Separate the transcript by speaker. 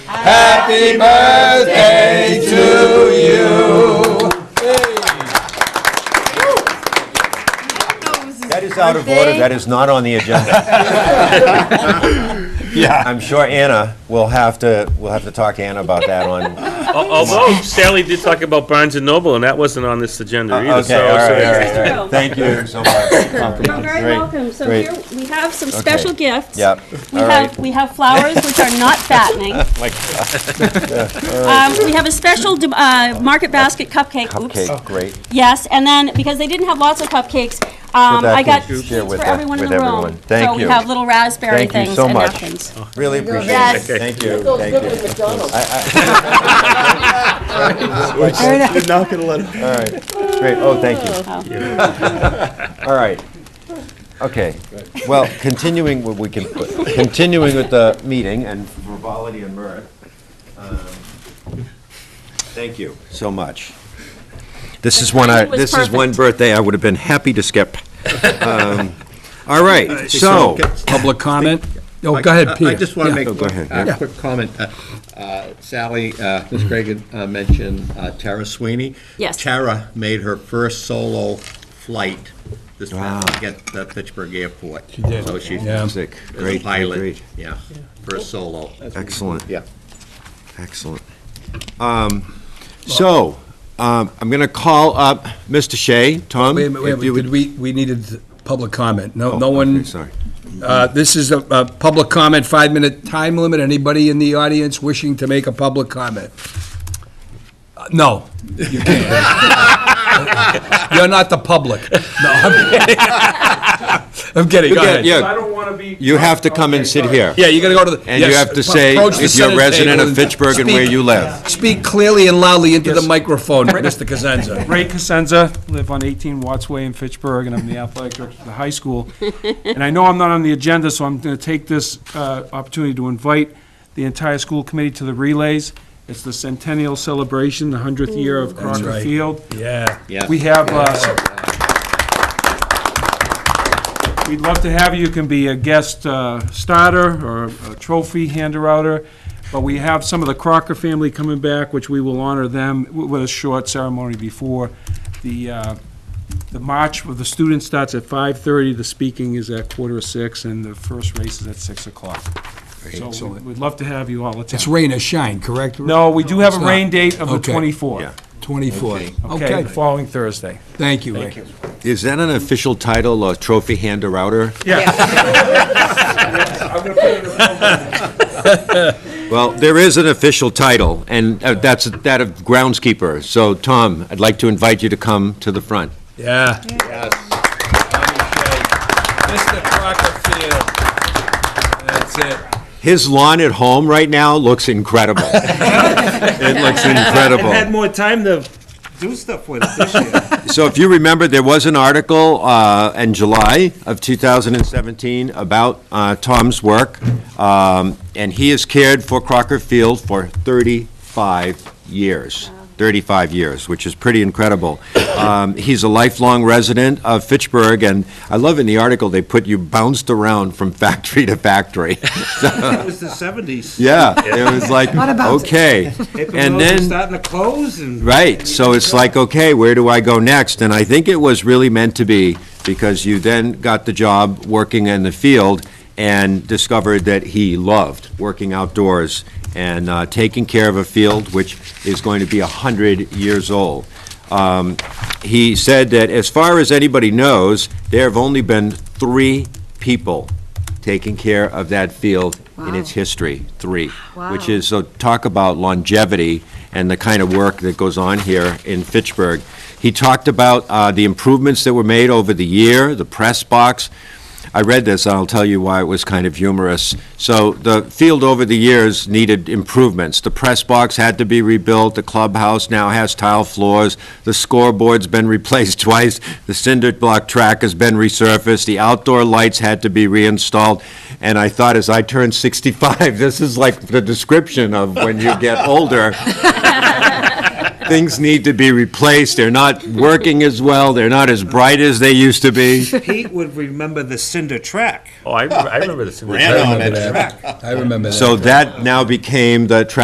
Speaker 1: Happy birthday to you.
Speaker 2: That is out of order,
Speaker 3: Birthday.
Speaker 2: that is not on the agenda.
Speaker 1: Yeah.
Speaker 2: I'm sure Anna will have to, we'll have to talk to Anna about that on,
Speaker 4: Al- Although Sally did talk about Barnes and Noble, and that wasn't on this agenda
Speaker 2: Uh, okay,
Speaker 4: either.
Speaker 2: all right,
Speaker 4: so-
Speaker 2: all
Speaker 4: so-
Speaker 2: right, all right. Thank you so much.
Speaker 3: You're very
Speaker 2: Great,
Speaker 3: welcome. So
Speaker 2: great.
Speaker 3: here, we have some special gifts.
Speaker 2: Yep,
Speaker 3: We
Speaker 2: all
Speaker 3: have,
Speaker 2: right. Oh
Speaker 3: we have flowers, which are not fattening. Um, We have a special de- uh, market basket cupcake. Oops.
Speaker 2: Cupcake, great.
Speaker 3: Yes, and then, because they didn't have lots of cupcakes, um,
Speaker 2: that
Speaker 3: I got
Speaker 2: can
Speaker 3: seeds
Speaker 2: share
Speaker 3: for
Speaker 2: with the-
Speaker 3: everyone in
Speaker 2: with
Speaker 3: the
Speaker 2: everyone.
Speaker 3: room.
Speaker 2: Thank
Speaker 3: So we
Speaker 2: you.
Speaker 3: have little raspberry
Speaker 2: Thank you
Speaker 3: things
Speaker 2: so
Speaker 3: and
Speaker 2: much.
Speaker 3: napkins.
Speaker 2: Really appreciate it.
Speaker 3: Yes.
Speaker 2: Thank you, thank you.
Speaker 1: You're not gonna let him.
Speaker 2: All right, great, oh, thank you. All right, okay, well, continuing, what we can, put- continuing with the meeting and frivolity and merit. um, Thank you so much. This is one, I.
Speaker 3: timing was
Speaker 2: this is one
Speaker 3: perfect.
Speaker 2: birthday I would have been happy to skip. Um, All right, so,
Speaker 5: Public comment? Oh, go ahead,
Speaker 1: I
Speaker 5: Peter.
Speaker 1: just want to make
Speaker 2: Oh, go ahead,
Speaker 1: a
Speaker 2: yeah.
Speaker 1: quick comment. Uh, uh, Sally, uh, Ms. Craig had, uh, mentioned uh, Tara Sweeney.
Speaker 3: Yes.
Speaker 1: Tara made her first solo flight this past
Speaker 2: Wow.
Speaker 1: weekend at the Pittsburgh Airport. She did.
Speaker 2: Oh,
Speaker 1: So she's
Speaker 5: Yeah.
Speaker 1: as
Speaker 2: sick,
Speaker 1: a
Speaker 2: great, great,
Speaker 1: pilot,
Speaker 2: great.
Speaker 1: yeah, first solo.
Speaker 2: excellent.
Speaker 1: Yeah.
Speaker 2: Excellent. Um, So, um, I'm going to call up Mr. Shea. Tom?
Speaker 5: Wait a minute, wait a
Speaker 2: if you
Speaker 5: minute,
Speaker 2: would-
Speaker 5: did we, we needed public comment. No,
Speaker 2: Oh,
Speaker 5: no
Speaker 2: okay,
Speaker 5: one,
Speaker 2: Sorry.
Speaker 5: uh, this is a, a public comment, five-minute time limit. Anybody in the audience wishing to make a public comment? Uh, No, you can't. You're not the public. No, I'm kidding. I'm kidding, go
Speaker 2: Yeah,
Speaker 5: ahead.
Speaker 2: yeah.
Speaker 6: I don't want to be.
Speaker 2: You have to come and sit here.
Speaker 5: Yeah, you gotta go to the.
Speaker 2: And you
Speaker 5: yes,
Speaker 2: have to say
Speaker 5: approach the
Speaker 2: if you're a
Speaker 5: Senate
Speaker 2: resident
Speaker 5: table
Speaker 2: of
Speaker 5: and
Speaker 2: Fitchburg and where
Speaker 5: speak-
Speaker 2: you live.
Speaker 5: Speak clearly and loudly into the microphone, Mr. Cosenza.
Speaker 6: Ray Cosenza, live on 18 Watts Way in Fitchburg, and I'm the athletic director of the high school. And I know I'm not on the agenda, so I'm going to take this uh, opportunity to invite the entire school committee to the relays. It's the centennial celebration, the 100th year of Crocker
Speaker 5: right.
Speaker 6: Field.
Speaker 5: Yeah.
Speaker 1: Yeah.
Speaker 6: We have, uh, we'd love to have you, you can be a guest uh, starter or a trophy hander-outer, but we have some of the Crocker family coming back, which we will honor them wi- with a short ceremony before. The, uh, the march of the students starts at 5:30, the speaking is at quarter to six, and the first race is at 6 o'clock. So we-
Speaker 5: Excellent.
Speaker 6: we'd love to have you all attend.
Speaker 5: It's rain or shine, correct?
Speaker 6: No, we do have
Speaker 5: It's
Speaker 6: a
Speaker 5: not.
Speaker 6: rain date of the
Speaker 5: Okay.
Speaker 6: 24th.
Speaker 5: 24.
Speaker 6: Okay,
Speaker 5: Okay,
Speaker 6: the following Thursday.
Speaker 5: thank you, Ray.
Speaker 2: Is that an official title, a trophy hander outer?
Speaker 6: Yeah.
Speaker 2: Well, there is an official title, and uh, that's that of groundskeeper. So, Tom, I'd like to invite you to come to the front.
Speaker 5: Yeah. Mr. Crocker Field. That's it.
Speaker 2: His lawn at home right now looks incredible. It looks incredible.
Speaker 6: more time to do stuff with it this year.
Speaker 2: So if you remember, there was an article uh, in July of 2017 about uh, Tom's work, um, and he has cared for Crocker Field for 35 years, 35 years, which is pretty incredible. Um, He's a lifelong resident of Fitchburg, and I love in the article, they put you bounced around from factory to factory.
Speaker 7: It was the seventies.
Speaker 2: Yeah, it was like, okay. And then.
Speaker 7: Starting to close and.
Speaker 2: Right, so it's like, okay, where do I go next? And I think it was really meant to be, because you then got the job working in the field and discovered that he loved working outdoors and uh, taking care of a field which is going to be 100 years old. Um, He said that as far as anybody knows, there have only been three people taking care of that field in its history, three. Which is, so talk about longevity and the kind of work that goes on here in Fitchburg. He talked about uh, the improvements that were made over the year, the press box. I read this, and I'll tell you why it was kind of humorous. So the field over the years needed improvements. The press box had to be rebuilt, the clubhouse now has tile floors, the scoreboard's been replaced twice, the cinder block track has been resurfaced, the outdoor lights had to be reinstalled. And I thought, as I turned 65, this is like the description of when you get older things need to be replaced, they're not working as well, they're not as bright as they used to be.
Speaker 7: Pete would remember the cinder track.
Speaker 4: Oh, I remember- I remember this.
Speaker 1: Ran on it.
Speaker 5: I remember that.
Speaker 2: So that now became the traffic